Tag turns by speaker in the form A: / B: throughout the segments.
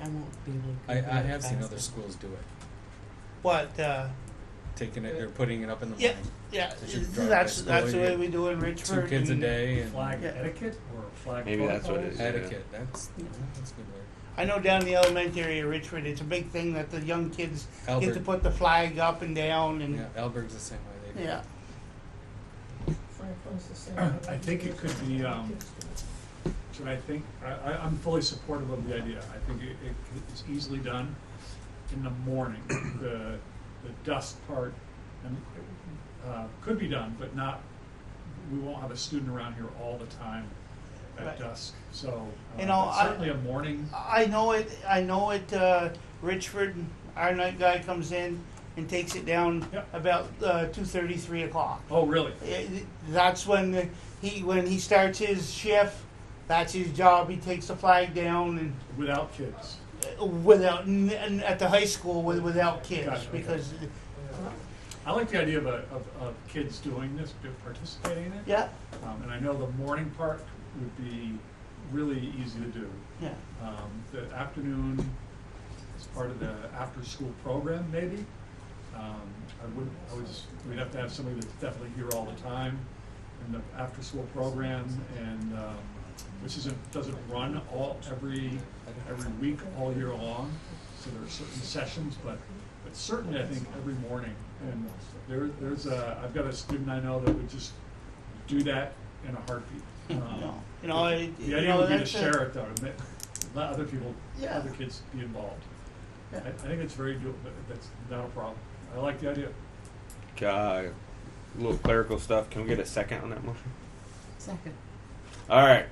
A: I won't be able to. go
B: I, I
A: that
B: have seen
A: fast.
B: other schools do it,
C: What, uh,
B: taking it, they're putting it up in the
C: Yeah.
B: morning,
C: yeah,
B: They should drive
C: that's,
B: by
C: that's the
B: school,
C: way
B: you-
C: we do in
B: two
C: Richmond.
B: kids a
C: and
B: day and
D: Flag
C: Yeah.
D: etiquette or flag
E: Maybe that's what it
D: protocols?
E: is.
B: etiquette, that's, that's a good word.
C: I know down in the elementary in Richmond, it's a big thing that the young kids get to
B: Albert,
C: put the flag up and down and,
B: yeah, Alberg's the same way, they do.
C: yeah.
F: Franklin's the same.
D: I think it could be, um, So I think, I, I, I'm fully supportive of the idea. I think it, it, it's easily done in the morning. The, the dust part, and, uh, could be done, but not, we won't have a student around here all the time
C: Right.
D: at dusk. So,
C: You know,
D: uh,
C: I-
D: certainly a morning,
C: I know it, I know it, uh, Richford, our night guy comes in and takes it down
D: Yep.
C: about, uh, two thirty, three o'clock.
D: oh, really?
C: It- That's when the- he, when he starts his shift, that's his job, he takes the flag down and
D: Without kids?
C: without n- n- at the high school with, without kids
D: Gotcha, okay.
C: because
D: I like the idea of, a- of, of kids doing this, do- participating in it.
C: yeah
D: Um, and I know the morning part would be really easy to do.
C: yeah
D: Um, the afternoon is part of the after-school program, maybe. Um, I wouldn't, I would just, we'd have to have somebody that's definitely here all the time in the after-school program and, um, which isn't, doesn't run all, every, every week, all year long. So there are certain sessions, but, but certainly I think every morning. And there, there's a, I've got a student I know that would just do that in a heartbeat. Um,
C: you know it,
D: the
C: you
D: idea
C: know,
D: would be to
C: that's a-
D: share it though, to make, let other people,
C: Yeah.
D: other kids be involved. I,
C: Yeah.
D: I think it's very doable, that's not a problem. I like the idea.
E: Uh, little clerical stuff. Can we get a second on that motion?
A: Second.
E: All right.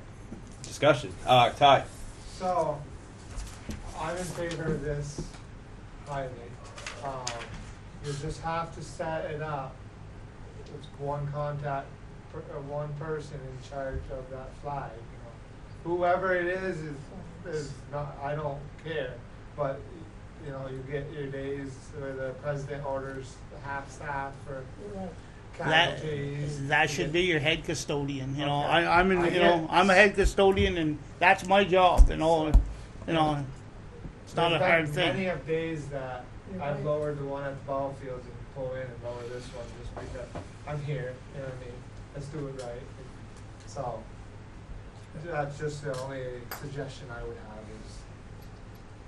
E: Discussion. Uh, Ty.
F: So, I'm in favor of this highly. Um, you just have to set it up with one contact, per, uh, one person in charge of that flag, you know. Whoever it is, is, is not, I don't care, but, you know, you get your days where the president orders the half staff for
C: that
F: casualties.
C: that should be your head custodian you know
F: Okay.
C: I, I'm in
F: I
C: you
F: get
C: know
F: it.
C: I'm a head custodian and that's my job you know you know it's not a
F: There's been
C: hard thing
F: Many of days that
A: You're
F: I've
A: right.
F: lowered the one at the ball fields and pull in and lower this one just because I'm here, you know what I mean? Let's do it right. So, that's just the only suggestion I would have is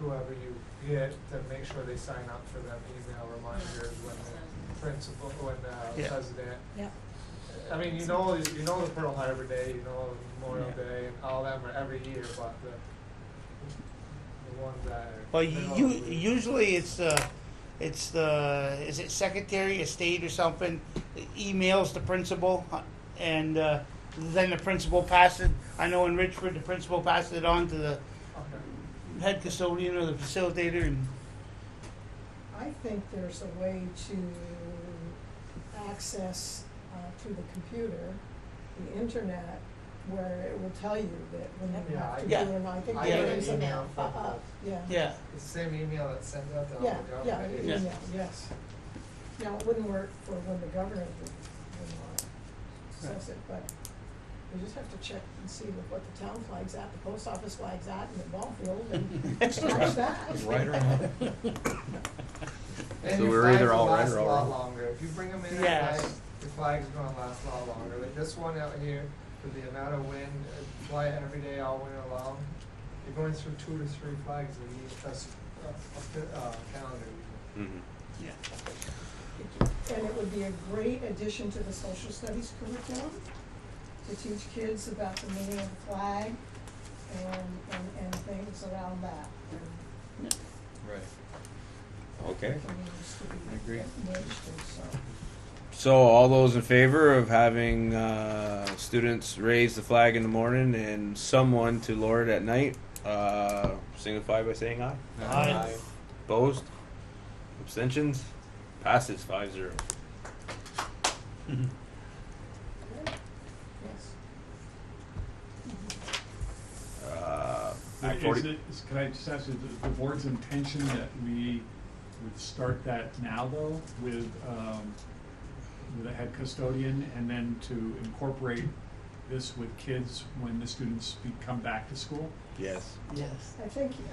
F: whoever you get to make sure they sign up for them email reminders when the principal, when the
C: Yeah.
F: president.
A: Yep.
F: I mean, you know, you know the Pearl Harbor Day, you know Memorial
C: Yeah.
F: Day and all them are every year, but the, the ones that are.
C: well
F: they're
C: you
F: all-
C: usually it's uh it's the is it secretary of state or something emails the principal uh, and uh, then the principal passes I know in Richford the principal passes it on to the
F: Okay.
C: head custodian or the facilitator and
F: I
G: think there's a way to access uh, to the computer, the internet, where it will tell you that when you
F: Yeah,
G: have to do
C: I-
G: it. And I think
F: I
A: Yeah.
F: get
G: there
F: an
G: is a,
F: email
G: uh,
F: from
G: uh, yeah, yeah,
C: yeah
F: It's the same email that sends out to all the
G: yeah, yeah,
F: government.
C: Yeah.
F: agencies.
G: yeah, yes. Now, it wouldn't work for when the governor would, would want it, says it, but we just have to check and see what- what the town flag's at, the post office flag's at, and the ball field, and watch that.
B: Right or wrong.
F: And
E: So
F: your
E: we're
F: flags
E: either
F: will
E: all right
F: last
E: or
F: a
E: all
F: lot
E: wrong.
F: longer. If you bring them in, at
C: Yes.
F: night, your flag's gonna last a lot longer. Like this one out here, with the amount of wind, uh, fly it every day all winter long, you're going through two to three flags a year, that's a, a, uh calendar. year.
E: Mm-hmm.
C: yeah.
G: And it would be a great addition to the social studies curriculum, to teach kids about the meaning of the flag and, and, and things around that. And
B: Right.
E: Okay.
G: it needs to be
B: I agree.
G: administered, so.
E: So, all those in favor of having uh, students raise the flag in the morning and someone to lower it at night, uh, signify by saying aye.
C: Aye.
E: Opposed? Abstentions? Passes 5 0.
G: Yes.
E: Uh,
D: I-
E: forty-
D: Is it, is, can I just ask you, the, the board's intention that we would start that now though with, um, with a head custodian and then to incorporate this with kids when the students be, come back to school?
E: yes.
C: Yes.
G: I think,